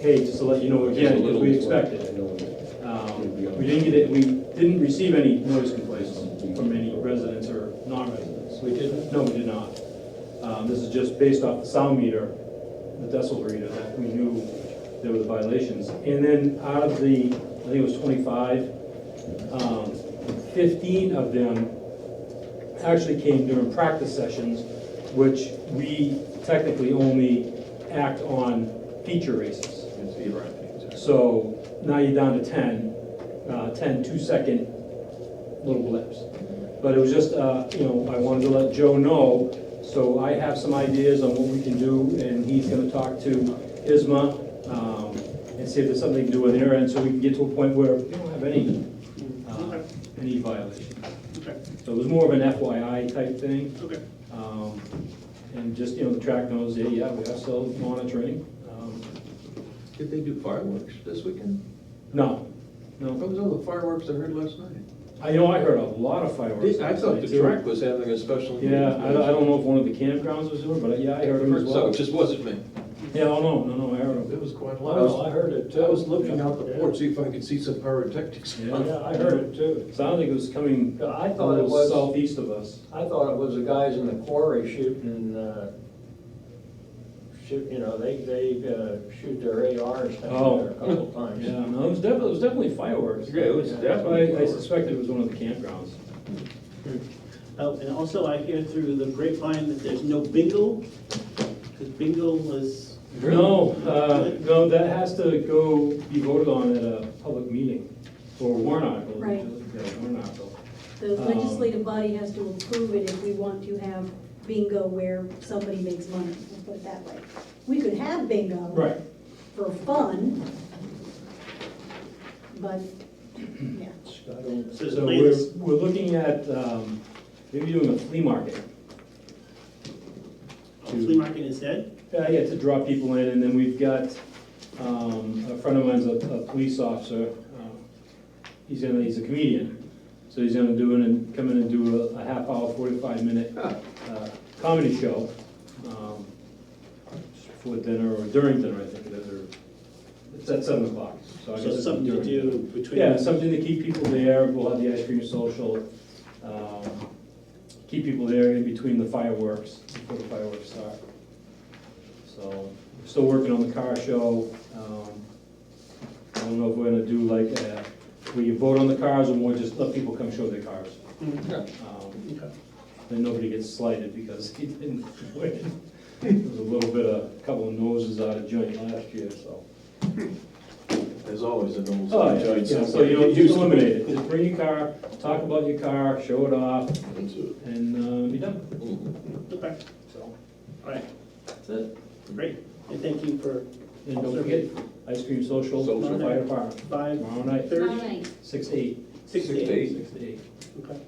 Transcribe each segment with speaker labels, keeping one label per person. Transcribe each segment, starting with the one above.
Speaker 1: hey, just to let you know again, because we expected it. Um, We didn't get it, we didn't receive any noise complaints from any residents or non-residents. We did, no, we did not. Um, This is just based off the sound meter, the decibel reader, that we knew there were violations. And then out of the, I think it was 25, um, 15 of them actually came during practice sessions, which we technically only act on feature races. So now you're down to 10, uh, 10 two-second little blips. But it was just, uh, you know, I wanted to let Joe know, so I have some ideas on what we can do, and he's gonna talk to Isma, um, and see if there's something to do with their end, so we can get to a point where we don't have any, uh, any violations.
Speaker 2: Okay,
Speaker 1: So it was more of an FYI type thing.
Speaker 2: okay.
Speaker 1: Um, And just, you know, the track knows, yeah, yeah, we are still monitoring. Um,
Speaker 3: Did they do fireworks this weekend?
Speaker 1: No,
Speaker 3: What
Speaker 1: no,
Speaker 3: was all the fireworks I heard last night?
Speaker 1: I know I heard a lot of fireworks.
Speaker 3: I thought
Speaker 1: last
Speaker 3: the
Speaker 1: night, too.
Speaker 3: track was having a special.
Speaker 1: Yeah, I don't, I don't know if one of the campgrounds was doing, it, but yeah, I heard them as
Speaker 3: So
Speaker 1: well.
Speaker 3: it just wasn't me.
Speaker 1: Yeah, oh, no, no, no, I heard them.
Speaker 3: It was quite
Speaker 4: Well, I
Speaker 3: loud.
Speaker 4: heard it
Speaker 1: uh,
Speaker 3: I was
Speaker 4: too.
Speaker 3: looking out the porch, see if I could see some pyrotechnics.
Speaker 4: Yeah, I heard it too.
Speaker 1: Sounded like it was coming
Speaker 4: Yeah, I
Speaker 1: a
Speaker 4: thought it
Speaker 1: little
Speaker 4: was,
Speaker 1: southeast of us.
Speaker 4: I thought it was the guys in the quarry shooting, uh, shoot, you know, they, they uh, shoot their ARs
Speaker 1: Oh.
Speaker 4: down there a couple times.
Speaker 1: Yeah, no, it was definitely, it was definitely fireworks.
Speaker 3: Yeah, it was
Speaker 1: That's why I- I
Speaker 3: definitely
Speaker 1: suspected it was one of the campgrounds.
Speaker 2: Oh, and also I hear through the grapevine that there's no bingo, because bingo was,
Speaker 1: No, uh, no, that has to go be voted on at a public meeting or warrant article.
Speaker 5: Right.
Speaker 1: Yeah, warrant article.
Speaker 5: The legislative body has to approve it if we want to have bingo where somebody makes money, let's put it that way. We could have bingo.
Speaker 1: Right.
Speaker 5: For fun. But, yeah,
Speaker 2: so it's
Speaker 1: So we're,
Speaker 2: latest,
Speaker 1: we're looking at, um, maybe doing a flea market.
Speaker 2: oh, flea market instead?
Speaker 1: Yeah, Uh, yeah, to draw people in, and then we've got, um, a friend of mine's a, a police officer, uh, he's gonna, he's a comedian, so he's gonna do it and come in and do a, a half hour, forty-five minute, uh, comedy show, um, just before dinner or during dinner, I think, that are, it's at seven o'clock, so Oh, I guess.
Speaker 2: So
Speaker 1: it's
Speaker 2: something to
Speaker 1: during
Speaker 2: do
Speaker 1: dinner.
Speaker 2: between.
Speaker 1: Yeah, something to keep people there, we'll have the ice cream social, um, keep people there in between the fireworks, before the fireworks start. So, still working on the car show, um, I don't know if we're gonna do like, uh, where you vote on the cars or more just let people come show their cars.
Speaker 2: Mm,
Speaker 1: Um,
Speaker 2: okay.
Speaker 1: Then nobody gets slighted because he didn't win. There was a little bit of, couple of noses out of joint last year, so.
Speaker 3: There's always a nose.
Speaker 1: Oh, yeah, yeah, so you don't, just eliminate it, just bring your car, talk about your car, show it off, and, uh, be done,
Speaker 2: Okay,
Speaker 1: so,
Speaker 2: all right,
Speaker 1: that's it.
Speaker 2: great. And thank you for
Speaker 1: And don't forget, ice cream social,
Speaker 3: Social.
Speaker 1: fire department,
Speaker 2: five
Speaker 1: tomorrow night,
Speaker 2: thirty,
Speaker 1: six to eight,
Speaker 3: Six
Speaker 2: six to
Speaker 3: to
Speaker 2: eight.
Speaker 1: six to eight,
Speaker 2: Okay.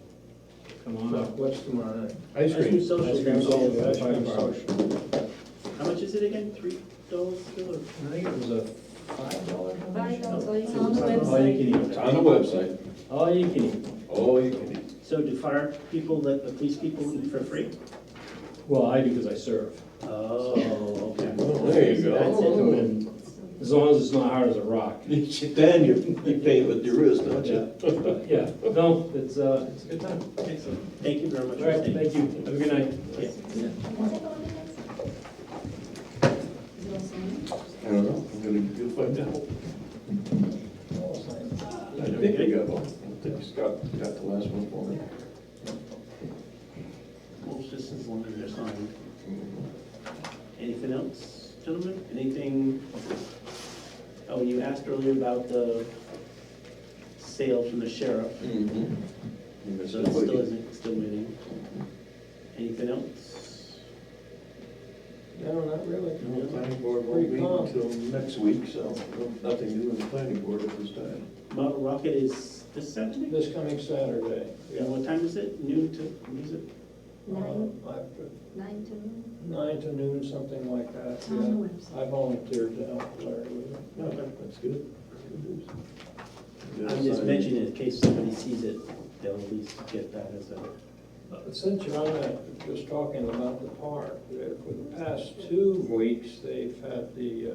Speaker 1: come on up.
Speaker 4: What's tomorrow night?
Speaker 3: Ice
Speaker 2: Ice cream
Speaker 3: cream.
Speaker 2: social.
Speaker 1: Ice cream social.
Speaker 4: That's
Speaker 1: Fire
Speaker 4: been
Speaker 1: department.
Speaker 4: social.
Speaker 2: How much is it again? Three dollars? still, or-
Speaker 1: I think it was a five dollar donation.
Speaker 5: it's on the
Speaker 1: All you
Speaker 5: website.
Speaker 1: can
Speaker 3: It's
Speaker 1: eat,
Speaker 3: on the website,
Speaker 1: all you can eat,
Speaker 3: all you can eat.
Speaker 2: So do fire people let the police people eat for free?
Speaker 1: well, I do because I serve, Uh,
Speaker 2: Oh, okay.
Speaker 3: Well, there you
Speaker 2: That's it.
Speaker 3: go.
Speaker 1: as long as it's not hard as a rock.
Speaker 3: Then you're, you paint with your wrist, don't you?
Speaker 1: But, Yeah, no, it's, uh, it's a good time,
Speaker 2: Excellent. Thank you very much.
Speaker 1: all
Speaker 2: for
Speaker 1: right,
Speaker 2: staying.
Speaker 1: thank you, have a good night.
Speaker 2: Yeah.
Speaker 5: Is it all signed?
Speaker 3: I don't know, I'm gonna, you'll find out. I think I got one, I think Scott got the last one for me.
Speaker 2: Most distance limited or signed. Anything else, gentlemen? Anything? Oh, you asked earlier about the sale from the sheriff.
Speaker 3: Mhm. You
Speaker 2: So
Speaker 3: missed
Speaker 2: Mm-hmm. that's still,
Speaker 3: it.
Speaker 2: isn't- still waiting. Anything else?
Speaker 3: No, not really. The planning board won't
Speaker 4: Pretty
Speaker 3: meet
Speaker 4: calm.
Speaker 3: until next week, so nothing new in the planning board at this time.
Speaker 2: Model Rocket is this Saturday?
Speaker 4: This coming Saturday.
Speaker 2: And what time is it? Noon to, what is it?
Speaker 5: Nine,
Speaker 4: Uh, I-
Speaker 5: nine to noon,
Speaker 4: Nine to noon, something like that,
Speaker 5: it's on
Speaker 4: yeah.
Speaker 5: the website.
Speaker 4: I volunteered to help Larry with it.
Speaker 3: No, that's good. That's good news.
Speaker 2: I'm just mentioning it in case somebody sees it, they'll at least get that as a.
Speaker 4: Uh, Since you're on that, just talking about the park, uh, for the past two weeks, they've had the uh,